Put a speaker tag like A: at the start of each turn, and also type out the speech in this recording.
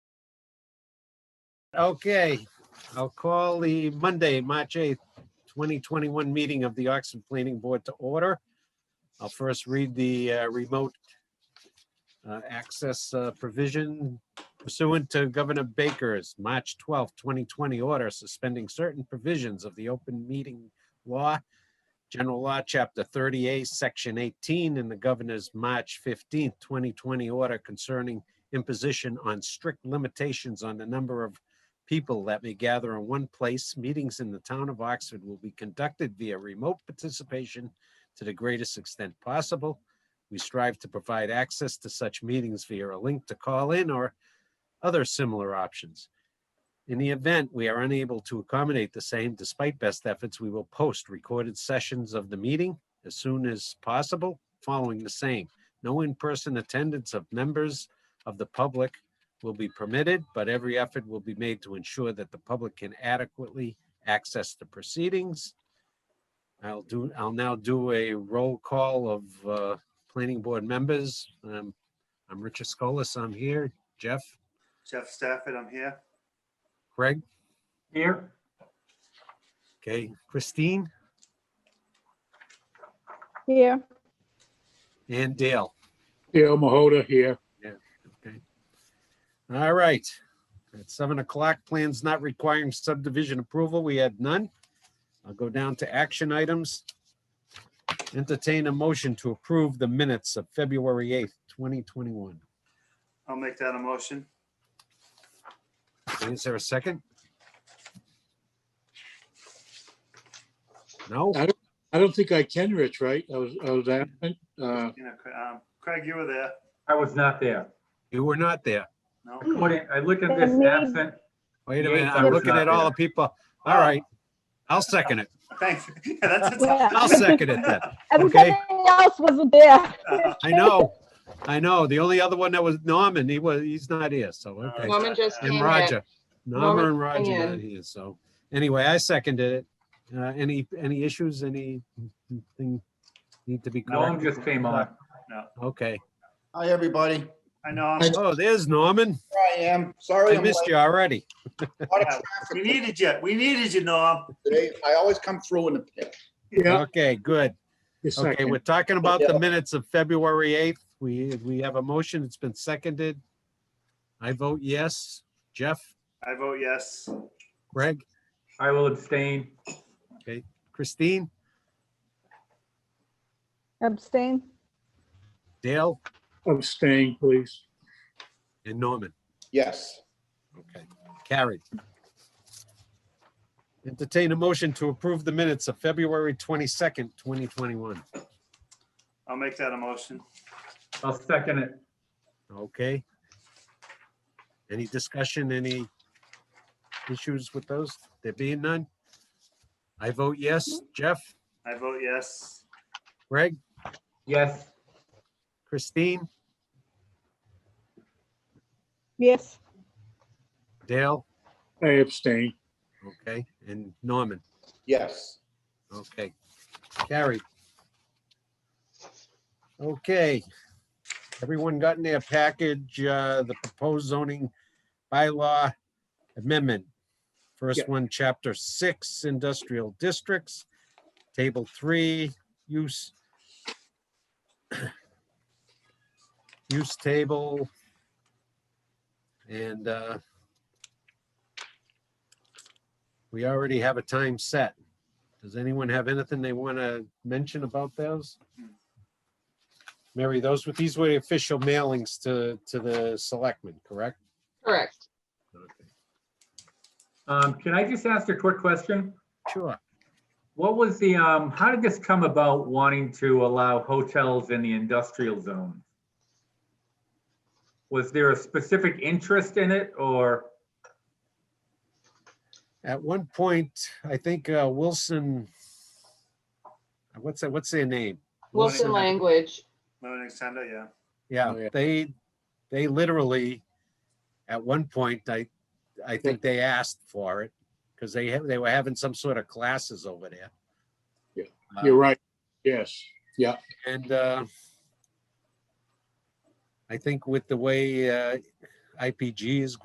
A: Okay, I'll call the Monday, March 8th, 2021 meeting of the Oxford Planning Board to order. I'll first read the uh, remote uh, access uh, provision pursuant to Governor Baker's March 12th, 2020 order suspending certain provisions of the open meeting law, General Law, Chapter 38, Section 18, and the Governor's March 15th, 2020 order concerning imposition on strict limitations on the number of people that may gather in one place. Meetings in the town of Oxford will be conducted via remote participation to the greatest extent possible. We strive to provide access to such meetings via a link to call in or other similar options. In the event we are unable to accommodate the same, despite best efforts, we will post recorded sessions of the meeting as soon as possible following the same. No in-person attendance of members of the public will be permitted, but every effort will be made to ensure that the public can adequately access the proceedings. I'll do, I'll now do a roll call of uh, planning board members. Um, I'm Richard Scolas, I'm here. Jeff,
B: Jeff Stafford, I'm here.
A: Craig,
B: Here.
A: okay, Christine
C: Here,
A: and Dale.
D: Dale Mahoda here.
A: All right. At seven o'clock, plans not requiring subdivision approval. We had none. I'll go down to action items. Entertain a motion to approve the minutes of February eighth, twenty twenty-one.
B: I'll make that a motion.
A: Is there a second? No?
D: I don't think I can, Rich, right? I was, I was absent. Uh,
B: You know, Cra- um, Craig, you were there.
E: I was not there.
A: You were not there.
B: No?
E: What do- I look at this
C: Then me.
E: absent,
A: Wait a
E: Yes,
A: minute,
E: I
A: I'm
E: was
A: looking
E: not
A: at all the
E: there.
A: people. All right. I'll second it.
B: Thanks. Yeah, that's a
C: Yeah.
B: tough-
A: I'll second it then.
C: everything else wasn't there.
A: I know. I know. The only other one that was Norman, he was, he's not here, so, okay.
F: Norman just
B: And
F: came
A: And
F: in.
A: Roger, Norma
F: Norma
A: and Roger
F: Kenyon.
A: not here, so, anyway, I seconded it. Uh, any, any issues, any thing need to be
E: Norm
A: corrected?
E: just came on.
A: Okay,
G: Hi, everybody.
B: I know, I'm-
A: oh, there's Norman,
G: Here I am. Sorry,
A: I
G: I'm
A: missed
G: late.
A: you already.
G: A lot of
B: Yeah, we
G: traffic
B: needed you. We needed you, Norm.
G: today. I always come through in the pick.
D: Yeah,
A: Okay, good,
D: just a
A: okay,
D: second.
A: we're talking about the minutes of February eighth, we, we have a motion, it's been seconded. I vote yes, Jeff,
B: I vote yes.
A: Greg,
E: I will abstain.
A: Christine,
C: Abstain?
A: Dale,
D: Abstain, please.
A: and Norman.
G: Yes.
A: Okay, carried. Entertain a motion to approve the minutes of February 22nd, 2021.
B: I'll make that a motion.
E: I'll second it.
A: Okay. Any discussion, any issues with those? There being none? I vote yes. Jeff,
B: I vote yes.
A: Greg,
E: Yes,
A: Christine,
C: Yes,
A: Dale,
D: I abstain.
A: okay, and Norman.
G: Yes.
A: Okay, carried. Okay, everyone got in their package, uh, the proposed zoning bylaw amendment. First
D: Yeah.
A: one, chapter six, industrial districts, table three, use. Use table. And, uh. We already have a time set. Does anyone have anything they want to mention about those? Mary, those were, these were the official mailings to, to the selectmen, correct?
F: Correct.
E: um, can I just ask a quick question?
A: Sure.
E: What was the, um, how did this come about wanting to allow hotels in the industrial zone? Was there a specific interest in it or,
A: At one point, I think uh, Wilson, what's that, what's their name?
F: Wilson language.
B: Learning center, yeah.
A: Yeah,
D: Oh, yeah.
A: they, they literally, at one point, I, I think they asked for it because they, ha- they were having some sort of classes over there.
D: Yeah,
A: Uh,
D: You're right. Yes.
A: And uh, I think with the way uh, IPG is